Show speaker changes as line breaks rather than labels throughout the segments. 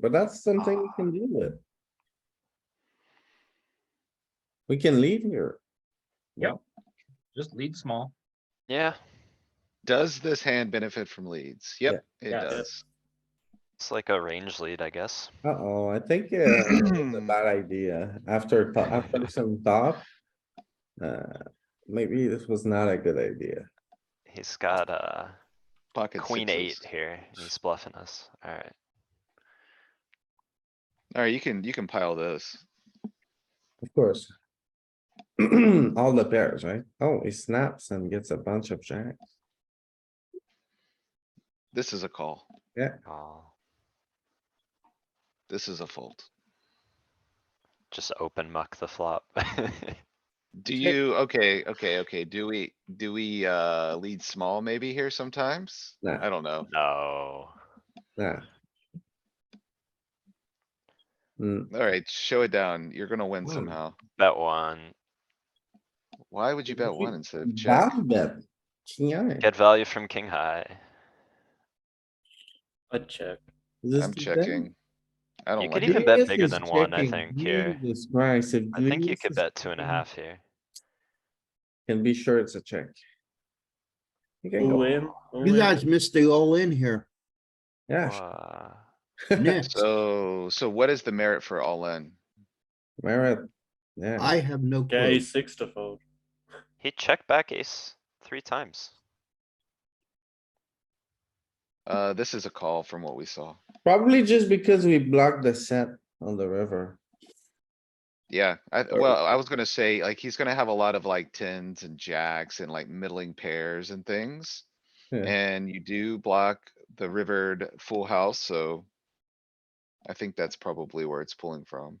But that's something we can deal with. We can leave here.
Just lead small.
Yeah,
Does this hand benefit from leads? Yep, it
yeah.
does.
it's like a range lead, I guess.
Uh-oh, I think uh, it's a bad idea after, to- after some thought. Uh, maybe this was not a good idea.
He's got uh
Pocket
queen eight
sixes.
here. He's bluffing us. Alright,
Alright, you can, you can pile those.
Of course. All the pairs, right? Oh, he snaps and gets a bunch of jacks.
This is a call.
oh,
This is a fold.
just open muck the flop.
Do you, okay, okay, okay, do we, do we, uh, lead small maybe here sometimes?
Nah.
I don't know.
No,
Nah. Hmm,
Alright, show it down. You're gonna win
Whoa.
somehow.
bet one.
Why would you
Did you
bet one instead of check?
bad bet. King eye.
Get value from king high.
I check.
Is this
I'm
too big?
checking. I don't
could
like
even
it.
bet
Julius
bigger
is
than one, I
checking.
think, here.
Jesus Christ, if
I think you
Julius
could
is-
bet two and a
Mm.
half here.
Can be sure it's a check. You can
All
go,
in. all
You
in.
guys missed the all in here.
yeah,
Whoa.
Nick,
So, so what is the merit for all in?
merit, yeah,
I have no
Yeah,
clue.
ace six to fold.
He checked back ace three times.
Uh, this is a call from what we saw.
probably just because we blocked the set on the river.
Yeah, I,
Or-
well, I was gonna say, like, he's gonna have a lot of like tens and jacks and like middling pairs and things.
Yeah.
And you do block the rivered full house, so. I think that's probably where it's pulling from.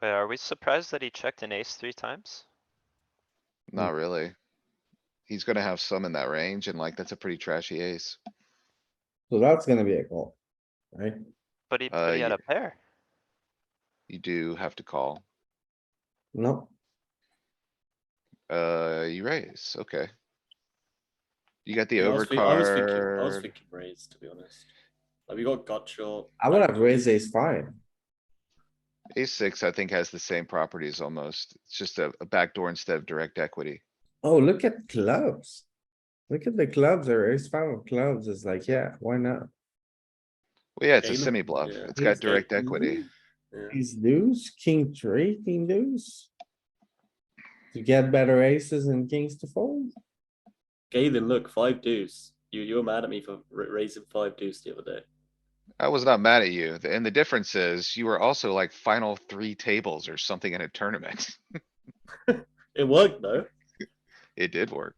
Wait, are we surprised that he checked an ace three times?
Mm.
Not really. He's gonna have some in that range and like, that's a pretty trashy ace.
So that's gonna be a call, right?
But he,
Uh,
but he had
ye-
a pair.
You do have to call.
No,
Uh, you raise, okay. You got the
I was thi- I was thinking- I was
overcard.
thinking raise, to be honest. Like we got gut short.
I would have raised ace five.
Ace six, I think, has the same properties almost. It's just a, a backdoor instead of direct equity.
Oh, look at clubs. Look at the clubs, there is five of clubs, it's like, yeah, why not?
Well, yeah, it's a
Game of-
semi bluff.
yeah.
It's
Game
got
of
direct
thrones.
equity.
Yeah.
These deuce, king three, king deuce. To get better aces and kings to fold.
Galen, look, five deuce. You you were mad at me for ra- raising five deuce the other day.
I was not mad at you. th- And the difference is you were also like final three tables or something in a tournament.
It worked though.
It did work.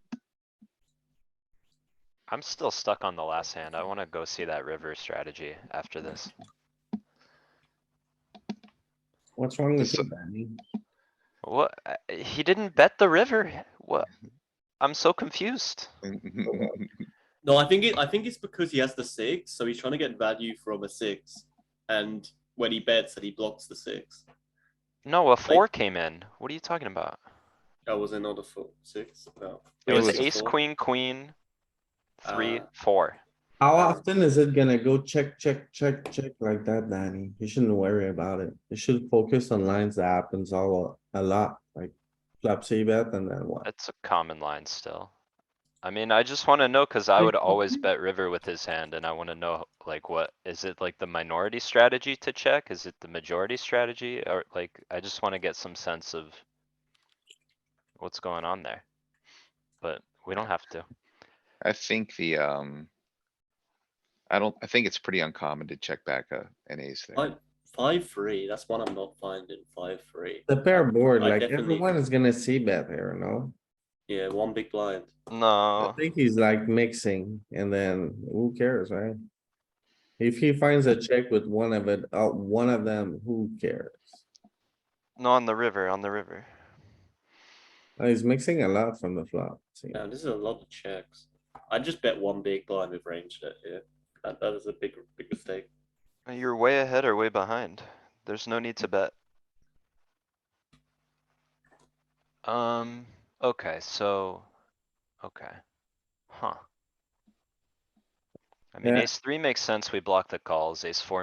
I'm still stuck on the last hand. I wanna go see that river strategy after this.
What's wrong with
So-
you, Danny?
What? uh, He didn't bet the river. What? I'm so confused.
No, I think it. I think it's because he has the six, so he's trying to get value from a six, and when he bets, that he blocks the six.
No, a four came in. What are you talking about?
That was another four six. No,
It
It
was
was a
ace,
four.
queen, queen, three,
Ah.
four.
How
Uh,
often is it gonna go check, check, check, check like that, Danny? You shouldn't worry about it. You should focus on lines that happens all a lot, like flop C bet and then what?
It's a common line still. I mean, I just wanna know, cause I
Like,
would always
okay.
bet river with his hand and I wanna know, like, what, is it like the minority strategy to check? Is it the majority strategy? Or like, I just wanna get some sense of what's going on there. But we don't have to.
I think the, um. I don't, I think it's pretty uncommon to check back a, an ace there.
five five three. That's one I'm not finding. Five three.
The pair board,
I
like
definitely-
everyone is gonna see bet here, no?
Yeah, one big blind.
I
No.
think he's like mixing and then who cares, right? If he finds a check with one of it, uh, one of them, who cares?
No, on the river, on the river.
Uh, He's mixing a lot from the flop. see?
Yeah, this is a lot of checks. I just bet one big blind with range that yeah. That, that is a big big mistake.
Uh, You're way ahead or way behind. There's no need to bet. Um, okay, so, okay. Huh. I mean,
Yeah.
ace three makes sense. We block the calls. Ace four